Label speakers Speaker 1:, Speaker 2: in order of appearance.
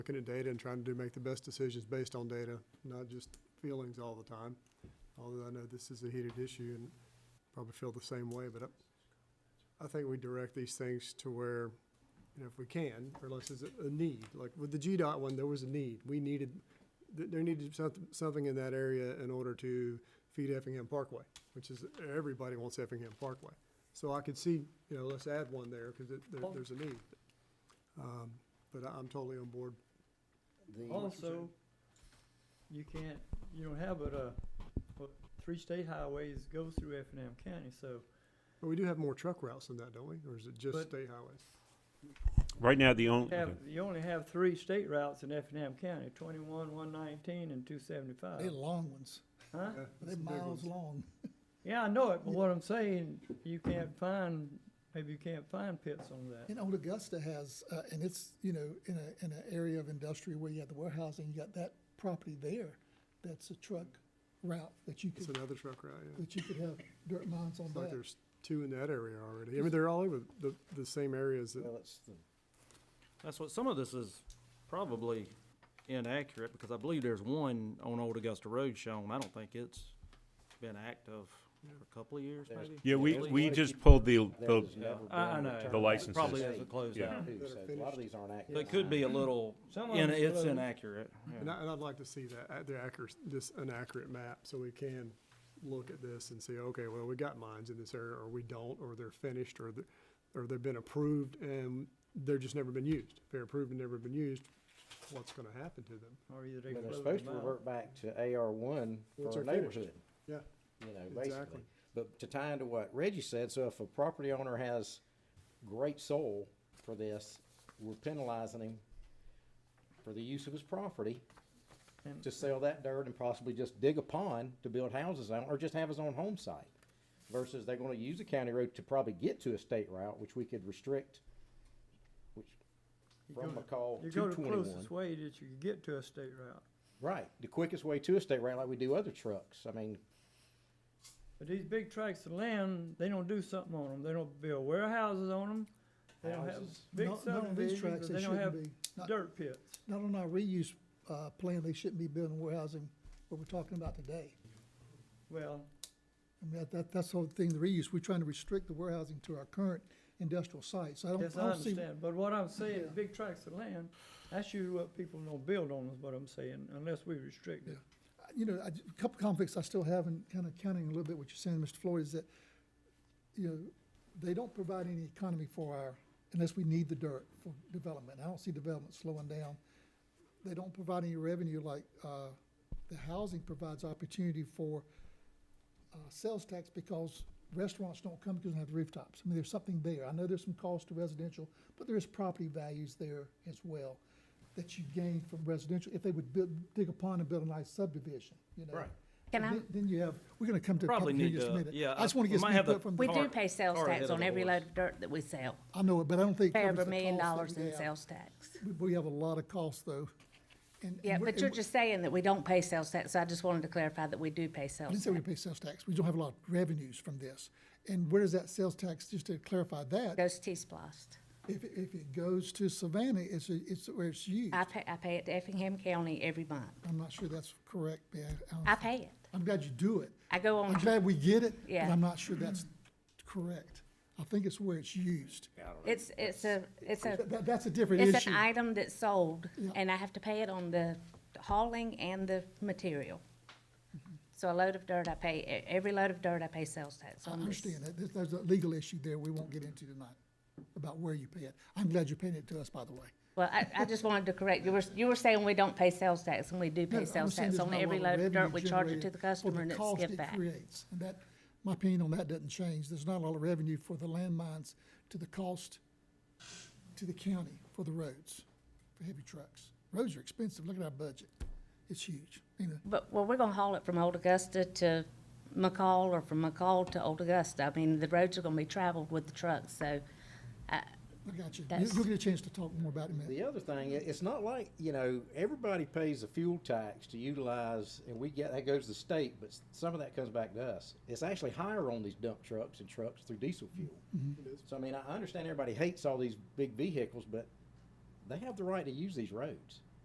Speaker 1: looking at data and trying to make the best decisions based on data, not just feelings all the time. Although I know this is a heated issue and probably feel the same way, but I, I think we direct these things to where, you know, if we can, or unless there's a, a need, like with the GDOT one, there was a need. We needed, th- there needed something, something in that area in order to feed Effingham Parkway, which is, everybody wants Effingham Parkway. So I could see, you know, let's add one there, cause it, there, there's a need. Um, But I- I'm totally on board.
Speaker 2: The,
Speaker 3: Also, you can't, you don't have but, uh, but three state highways go through Effingham County, so
Speaker 1: But we do have more truck routes than that, don't we? Or is it just
Speaker 3: But-
Speaker 1: state highways?
Speaker 4: Right now, the
Speaker 3: you
Speaker 4: only,
Speaker 3: have, you only have three state routes in Effingham County, twenty-one, one nineteen, and two
Speaker 2: they're
Speaker 3: seventy-five,
Speaker 2: long ones,
Speaker 3: huh?
Speaker 1: Yeah,
Speaker 2: they're
Speaker 1: it's the big
Speaker 2: miles
Speaker 1: ones.
Speaker 2: long.
Speaker 3: Yeah, I know it, but what I'm saying, you can't find, maybe you can't find pits on that.
Speaker 2: And Old Augusta has, uh, and it's, you know, in a, in an area of industry where you have the warehousing, you got that property there. That's a truck route that you
Speaker 1: It's
Speaker 2: could,
Speaker 1: another truck route, yeah.
Speaker 2: that you could have dirt mines on
Speaker 1: It's like
Speaker 2: that.
Speaker 1: there's two in that area already. I mean, they're all over the, the same areas that,
Speaker 5: Well, it's the,
Speaker 6: That's what, some of this is probably inaccurate, because I believe there's one on Old Augusta Road shown, I don't think it's been active for a couple of years,
Speaker 5: There's-
Speaker 6: maybe?
Speaker 4: yeah, we,
Speaker 6: At least.
Speaker 4: we just pulled the, the,
Speaker 5: there's never been.
Speaker 6: I- I
Speaker 5: a
Speaker 6: know.
Speaker 5: return
Speaker 6: The
Speaker 4: licenses.
Speaker 6: Probably
Speaker 5: back to
Speaker 6: hasn't
Speaker 5: state,
Speaker 6: closed
Speaker 4: Yeah.
Speaker 6: out.
Speaker 5: too, so A lot of these aren't active.
Speaker 6: But it could be a little,
Speaker 3: Some of
Speaker 6: in-
Speaker 3: them's
Speaker 6: it's
Speaker 3: closed.
Speaker 6: inaccurate, yeah.
Speaker 1: and I, and I'd like to see that, uh, the accurate, this, an accurate map, so we can look at this and say, okay, well, we got mines in this area, or we don't, or they're finished, or the, or they've been approved and they're just never been used. If they're approved and never been used, what's gonna happen to them?
Speaker 3: Or either they
Speaker 5: But they're
Speaker 3: close
Speaker 5: supposed
Speaker 3: them
Speaker 5: to
Speaker 3: out.
Speaker 5: revert back to AR one
Speaker 1: Once
Speaker 5: for a
Speaker 1: they're finished.
Speaker 5: neighborhood.
Speaker 1: Yeah.
Speaker 5: You know,
Speaker 1: Exactly.
Speaker 5: basically. But to tie into what Reggie said, so if a property owner has great soul for this, we're penalizing him for the use of his property
Speaker 3: And-
Speaker 5: to sell that dirt and possibly just dig a pond to build houses on, or just have his own home site. Versus they're gonna use a county road to probably get to a state route, which we could restrict, which,
Speaker 3: You
Speaker 5: from
Speaker 3: go to-
Speaker 5: McCall
Speaker 3: You
Speaker 5: to
Speaker 3: go the
Speaker 5: twenty-one.
Speaker 3: closest way that you can get to a state route,
Speaker 5: Right, the quickest way to a state route, like we do other trucks. I mean,
Speaker 3: but these big tracts of land, they don't do something on them, they don't build warehouses on them, they don't have
Speaker 5: Houses.
Speaker 3: big
Speaker 2: Not- not on these tracks,
Speaker 3: subdivisions, and they don't have
Speaker 2: shouldn't be. Not-
Speaker 3: dirt pits.
Speaker 2: Not on our reuse, uh, plan, they shouldn't be building warehousing, what we're talking about today.
Speaker 3: Well,
Speaker 2: I mean, that- that, that's the whole thing, the reuse, we're trying to restrict the warehousing to our current industrial sites. I don't, I
Speaker 3: yes, I
Speaker 2: don't see,
Speaker 3: understand, but what I'm saying,
Speaker 2: Yeah.
Speaker 3: big tracts of land, that's usually what people don't build on, is what I'm saying, unless we restrict it.
Speaker 2: you know, I- a couple conflicts I still have, and kind of counting a little bit what you're saying, Mr. Floyd, is that, you know, they don't provide any economy for our, unless we need the dirt for development. I don't see development slowing down. They don't provide any revenue like, uh, the housing provides opportunity for, uh, sales tax because restaurants don't come because they have rooftops. I mean, there's something there. I know there's some cost to residential, but there is property values there as well that you gain from residential if they would build, dig a pond and build a nice subdivision, you know?
Speaker 5: Right.
Speaker 2: And
Speaker 7: Can I-
Speaker 2: then- Then you have, we're gonna come to
Speaker 6: Probably
Speaker 2: public hearing
Speaker 6: need
Speaker 2: just a
Speaker 6: to-
Speaker 2: minute.
Speaker 6: yeah,
Speaker 2: I just
Speaker 6: I-
Speaker 2: wanna
Speaker 6: we
Speaker 2: get
Speaker 6: might
Speaker 2: some
Speaker 6: have the-
Speaker 2: input from
Speaker 7: We
Speaker 2: the,
Speaker 7: do
Speaker 6: Tar-
Speaker 7: pay sales
Speaker 6: tar ahead
Speaker 7: tax
Speaker 6: of
Speaker 7: on
Speaker 6: the
Speaker 7: every
Speaker 6: horse.
Speaker 7: load of dirt that we sell.
Speaker 2: I know it, but I don't think. it
Speaker 7: Pay
Speaker 2: covers
Speaker 7: over a
Speaker 2: the
Speaker 7: million
Speaker 2: costs that
Speaker 7: dollars
Speaker 2: we
Speaker 7: in
Speaker 2: have.
Speaker 7: sales tax.
Speaker 2: We- We have a lot of costs though. and- and
Speaker 7: Yeah,
Speaker 2: we're-
Speaker 7: but you're
Speaker 2: and
Speaker 7: just saying that we don't pay sales tax, so I just wanted to clarify that we do pay
Speaker 2: I didn't
Speaker 7: sales
Speaker 2: say we
Speaker 7: tax.
Speaker 2: pay sales tax. We don't have a lot of revenues from this. And where does that sales tax, just to clarify that,
Speaker 7: Goes T-Splost.
Speaker 2: if, it- if it goes to Savannah, it's, a- it's where it's used.
Speaker 7: I pay, I pay it to Effingham County every month.
Speaker 2: I'm not sure that's correct, but I-
Speaker 7: I
Speaker 2: I,
Speaker 7: pay it.
Speaker 2: I'm glad you do it.
Speaker 7: I go
Speaker 2: I'm
Speaker 7: on,
Speaker 2: glad we get it, but
Speaker 7: Yeah.
Speaker 2: I'm not sure that's correct. I think it's where it's used.
Speaker 7: it's, it's a, it's a,
Speaker 2: That- that- that's a different issue.
Speaker 7: it's an item that's sold,
Speaker 2: Yeah.
Speaker 7: and I have to pay it on the hauling and the material. So a load of dirt, I pay, e- every load of dirt, I pay sales tax
Speaker 2: I
Speaker 7: on this.
Speaker 2: understand that. There's, there's a legal issue there we won't get into tonight about where you pay it. I'm glad you're paying it to us, by the way.
Speaker 7: Well, I, I just wanted to correct, you were, you were saying we don't pay sales tax, and we do
Speaker 2: No,
Speaker 7: pay
Speaker 2: I'm
Speaker 7: sales
Speaker 2: saying
Speaker 7: tax
Speaker 2: there's
Speaker 7: on
Speaker 2: not a
Speaker 7: every
Speaker 2: lot of
Speaker 7: load of dirt,
Speaker 2: revenue
Speaker 7: we charge it to
Speaker 2: generated
Speaker 7: the
Speaker 2: for
Speaker 7: customer, and it's
Speaker 2: cost
Speaker 7: give
Speaker 2: it
Speaker 7: back.
Speaker 2: creates. And that, my opinion on that doesn't change. There's not a lot of revenue for the landmines to the cost to the county for the roads, for heavy trucks. Roads are expensive. Look at our budget. It's huge. You know,
Speaker 7: But, well, we're gonna haul it from Old Augusta to McCall, or from McCall to Old Augusta, I mean, the roads are gonna be traveled with the trucks, so,
Speaker 2: I got you. You-
Speaker 7: That's-
Speaker 2: You'll get a chance to talk more about it in a minute.
Speaker 5: the other thing, i- it's not like, you know, everybody pays a fuel tax to utilize, and we get, that goes to the state, but s- some of that comes back to us. It's actually higher on these dump trucks and trucks through diesel fuel. So I mean, I understand everybody hates all these big vehicles, but they have the right to use these roads.